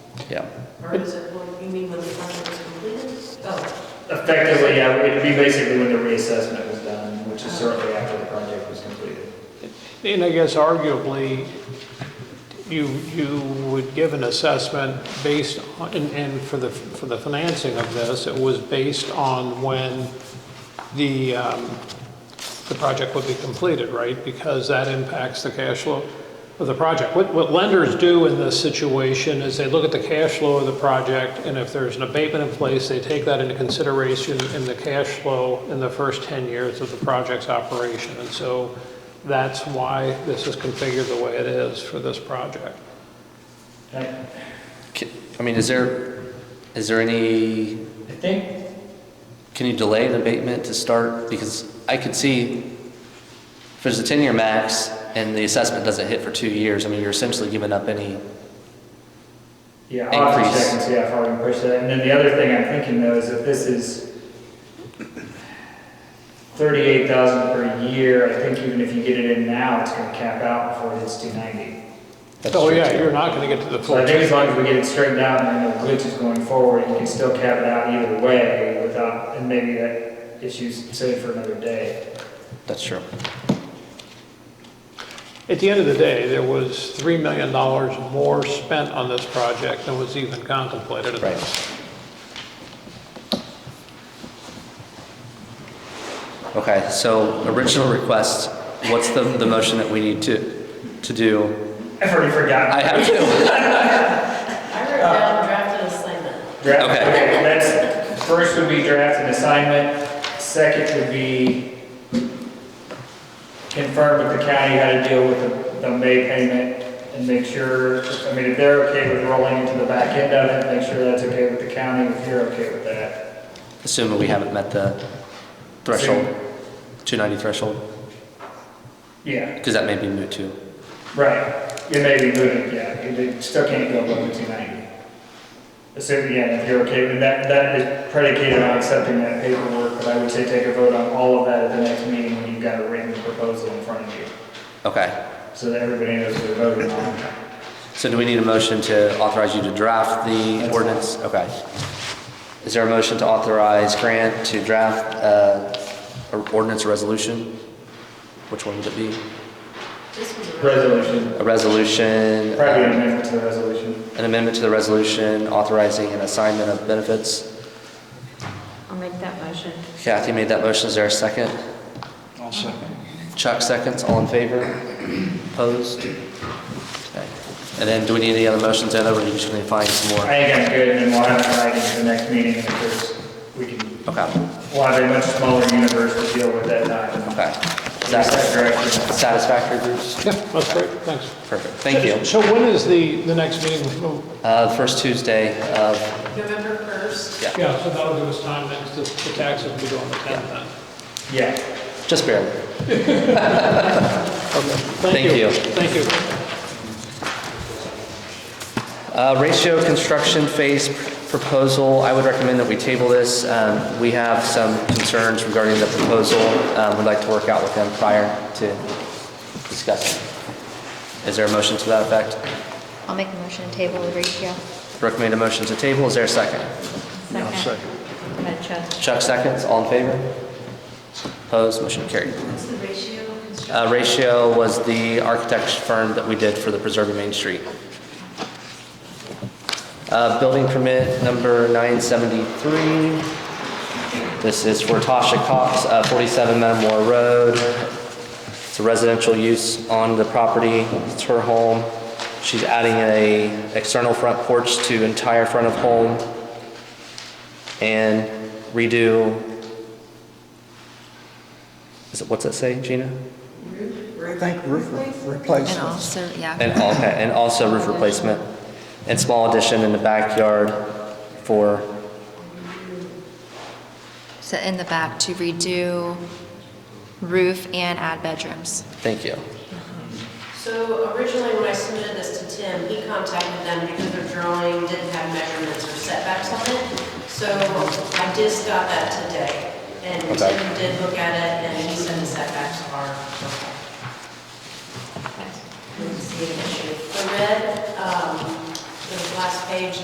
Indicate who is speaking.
Speaker 1: yeah.
Speaker 2: Or is it, well, you mean when the project is completed? Oh,
Speaker 3: Effectively, yeah, it'd be basically when the reassessment was done, which is certainly after the project was completed.
Speaker 4: And I guess arguably, you, you would give an assessment based, on- and, and for the, for the financing of this, it was based on when the, um, the project would be completed, right? Because that impacts the cash flow of the project. What, what lenders do in this situation is they look at the cash flow of the project, and if there's an abatement in place, they take that into consideration in the cash flow in the first 10 years of the project's operation. And so that's why this is configured the way it is for this project.
Speaker 3: I
Speaker 1: Ca- I mean, is there, is there any,
Speaker 3: I think,
Speaker 1: can you delay an abatement to start? Because I could see, if there's a 10-year max and the assessment doesn't hit for two years, I mean, you're essentially giving up any,
Speaker 3: yeah, I'll have to
Speaker 1: Increase.
Speaker 3: check and see how far we can push that. And then the other thing I'm thinking though is if this is thirty-eight thousand per year, I think even if you get it in now, it's gonna cap out before it hits two ninety.
Speaker 1: That's
Speaker 4: Oh,
Speaker 1: true,
Speaker 4: yeah,
Speaker 1: too.
Speaker 4: you're not going to get to the
Speaker 3: So
Speaker 4: full.
Speaker 3: I think as long as we get it straightened out and there are no glitches going forward, you can still cap it out either way without, and maybe that issue's saved for another day.
Speaker 1: that's true.
Speaker 4: At the end of the day, there was $3 million more spent on this project than was even contemplated at
Speaker 1: Right.
Speaker 4: this.
Speaker 1: Okay, so original request, what's the, the motion that we need to, to do?
Speaker 3: I've already forgotten.
Speaker 1: I have to,
Speaker 2: I wrote
Speaker 5: Uh,
Speaker 2: down drafted assignment.
Speaker 3: Draft,
Speaker 1: Okay.
Speaker 3: okay, that's, first would be draft an assignment, second would be confirm with the county how to deal with the, the May payment and make sure, I mean, if they're okay with rolling into the back end of it, make sure that's okay with the county, if you're okay with that.
Speaker 1: assuming we haven't met the threshold, 290 threshold,
Speaker 3: Yeah,
Speaker 1: because that may be moot too.
Speaker 3: right, it may be moving, yeah, it, it still can't go above the two ninety. Assuming, yeah, if you're okay with that, that is predicated on accepting that paperwork, but I would say take a vote on all of that at the next meeting when you've got a written proposal in front of you.
Speaker 1: Okay,
Speaker 3: so that everybody knows what they're voting on.
Speaker 1: so do we need a motion to authorize you to draft the
Speaker 3: That's-
Speaker 1: ordinance? Okay. Is there a motion to authorize Grant to draft, uh, or ordinance or resolution? Which one would it be?
Speaker 2: This was a.
Speaker 3: Resolution.
Speaker 1: A resolution?
Speaker 3: Probably an
Speaker 1: um,
Speaker 3: amendment to the resolution.
Speaker 1: An amendment to the resolution authorizing an assignment of benefits.
Speaker 5: I'll make that motion.
Speaker 1: Kathy made that motion, is there a second?
Speaker 6: I'll second.
Speaker 1: Chuck seconds, all in favor? Opposed? Okay. And then do we need any other motions, Ed, or are you just gonna find some
Speaker 3: I
Speaker 1: more?
Speaker 3: think I'm good, and then we'll have it right into the next meeting, and of course, we can,
Speaker 1: Okay,
Speaker 3: we'll have a much smaller universe to deal with that time.
Speaker 1: okay. Is
Speaker 3: That's
Speaker 1: that
Speaker 3: correct.
Speaker 1: satisfactory, Bruce?
Speaker 4: Yeah, that's great, thanks.
Speaker 1: Perfect, thank you.
Speaker 4: So when is the, the next meeting? Oh,
Speaker 1: Uh, first Tuesday of,
Speaker 2: November 1st.
Speaker 4: Yeah, so that'll give us time, then, 'cause the the tax will be due on the 10th then.
Speaker 3: Yeah.
Speaker 1: just barely. Thank you.
Speaker 4: Thank you.
Speaker 1: Uh, Ratio construction phase proposal, I would recommend that we table this. Um, We have some concerns regarding the proposal. Um, We'd like to work out with them prior to discussing. Is there a motion to that effect?
Speaker 5: I'll make a motion to table the ratio.
Speaker 1: Recommend a motion to table, is there a second?
Speaker 5: Second. Go ahead, Chuck.
Speaker 1: Chuck seconds, all in favor? Opposed, motion carried.
Speaker 2: What's the ratio of construction?
Speaker 1: Uh, Ratio was the architect's firm that we did for the Preserving Main Street. Uh, Building permit number 973. This is for Tasha Cox, uh, 47 Metamora Road. It's a residential use on the property. It's her home. She's adding a external front porch to entire front of home and redo, is it, what's that say, Gina?
Speaker 6: I think roof replacement.
Speaker 5: And also, yeah.
Speaker 1: And, al- okay, and also roof replacement and small addition in the backyard for,
Speaker 5: So in the back to redo roof and add bedrooms.
Speaker 1: thank you.
Speaker 2: So originally, when I submitted this to Tim, he contacted them because their drawing didn't have measurements or setbacks on it. So I just got that today, and
Speaker 1: Okay.
Speaker 2: Tim did look at it, and he said the setbacks are okay. Didn't see an issue. The red, um, the last page